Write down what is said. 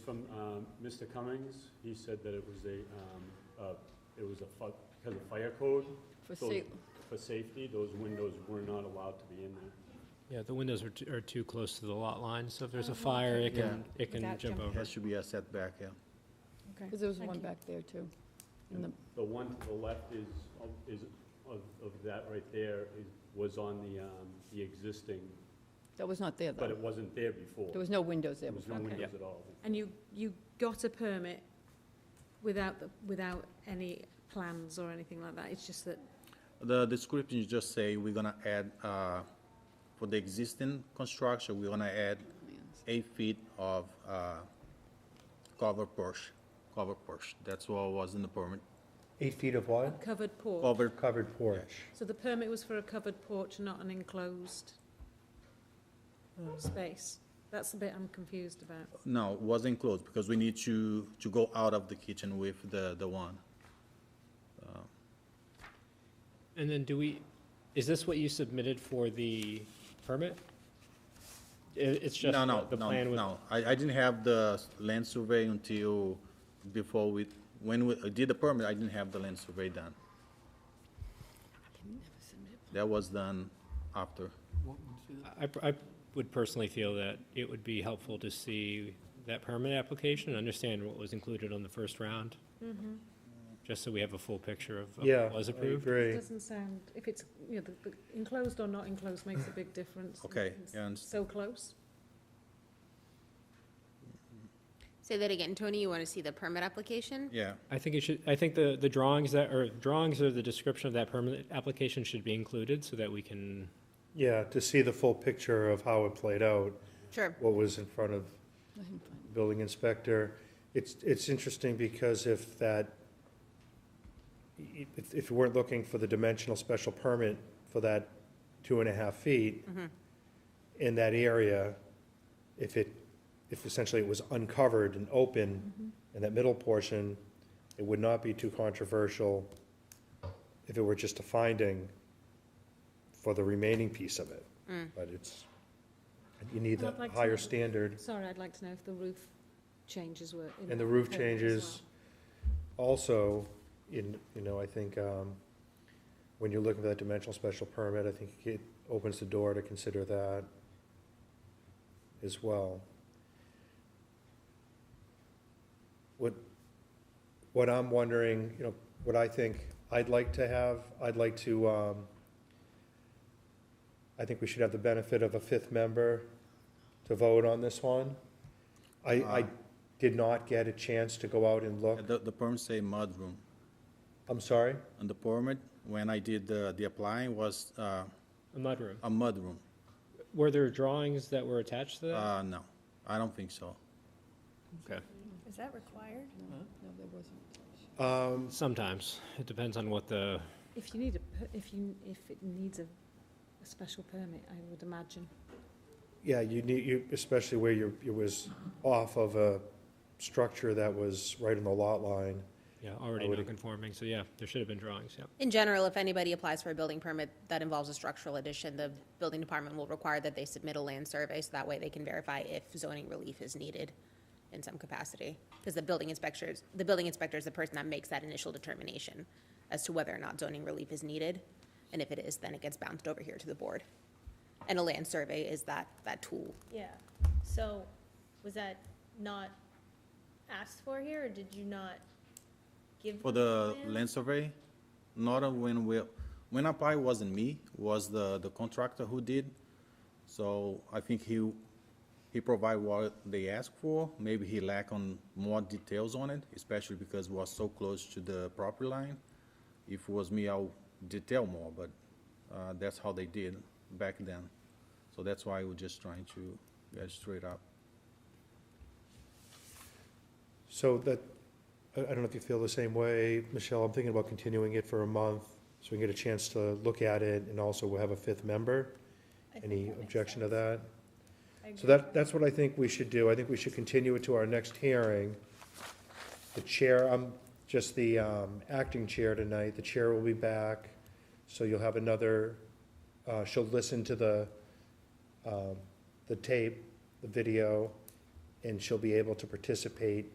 From um, Mr. Cummings, he said that it was a, um, uh, it was a, fi- because of fire code, For So- sa- for safety, those windows were not allowed to be in there. Yeah, the windows are, t- are too close to the lot line, so if there's a Uh-huh. Oh, okay. fire, it can, Yeah. it can Without jump over. That should be a setback, yeah. Because there was Thank one you. back there, too. And the- The one to the left is, of- is, of, of that right there, is, was on the, um, the existing, That was not there, but it Mm. though. wasn't there before. There was no windows there There was before. no Okay. windows at all. And you, you got a permit without, the- without any plans or anything like that? It's just that, The description you just say, we're gonna add, uh, for the existing construction, we're gonna add eight feet of, uh, cover porch, cover porch. That's what was in the permit. Eight feet of what? covered porch? Covered, Covered porch. So the permit was for a covered porch, not an enclosed space? That's the bit I'm confused about. no, wasn't closed, because we need to, to go out of the kitchen with the, the one. And then do we, is this what you submitted for the permit? I it's just the No, no, the no, plan with. no. I, I didn't have the s- land survey until before we, when we did the permit, I didn't have the land survey done. That was done after. I, pr- I would personally feel that it would be helpful to see that permit application, and understand what was included on the first round. Just so we have a full picture of of Yeah. what was I approved. agree. Doesn't sound, if it's, you know, the- the enclosed or not enclosed makes a big difference. Okay, It's yeah, I understand. So close? Say that again, Tony, you want to see the permit application? Yeah, I think it should, I think the, the drawings that, or drawings or the description of that permit application should be included, so that we can Yeah, to see the full picture of how it played out, Sure. what was in front of I didn't find the building inspector. It's, it's interesting because if that, if, if we weren't looking for the dimensional special permit for that two and a half feet in that area, if it, if essentially it was uncovered and open in that middle portion, it would not be too controversial if it were just a finding for the remaining piece of it. Mm. But it's, you need And I'd that like to know- higher standard. Sorry, I'd like to know if the roof changes were. in And that the roof permit as changes also in, you know, I think, um, when you're looking for that dimensional special permit, I think it opens the door to consider that as well. What, what I'm wondering, you know, what I think I'd like to have, I'd like to, um, I think we should have the benefit of a fifth member to vote on this one. I, I Uh. did not get a chance to go out and look. the, the permit say mudroom. I'm sorry? And the permit, when I did the, the applying, was, uh, A mudroom. a mudroom. Were there drawings that were attached to that? Uh, no, I don't think so. Okay. Is that required? it. No, there wasn't. Um, Sometimes. It depends on what the, well. If you need a, per- if you, if it needs a, a special permit, I would imagine. Yeah, you need, you, especially where you, it was off of a structure that was right on the lot line. yeah, already I would- non-conforming, so yeah, there should have been drawings, yeah. In general, if anybody applies for a building permit that involves a structural addition, the building department will require that they submit a land survey, so that way they can verify if zoning relief is needed in some capacity. Because the building inspectors, the building inspector is the person that makes that initial determination as to whether or not zoning relief is needed. And if it is, then it gets bounced over here to the board. And a land survey is that, that tool Yeah. So was that not asked for here, or did you not give? For them the plan? land survey, not on when we, when apply wasn't me, was the, the contractor who did. So I think he, he provide what they asked for, maybe he lack on more details on it, especially because we was so close to the property line. If it was me, I'll detail more, but, uh, that's how they did back then. So that's why we're just trying to get straight up. So that, I, I don't know if you feel the same way, Michelle, I'm thinking about continuing it for a month, so we can get a chance to look at it, and also we'll have a fifth member. I think Any that makes objection to sense. that? I agree. So that, that's what I think we should do. I think we should continue it to our next hearing. The chair, I'm just the um, acting chair tonight. The chair will be back, so you'll have another, uh, she'll listen to the, um, the tape, the video, and she'll be able to participate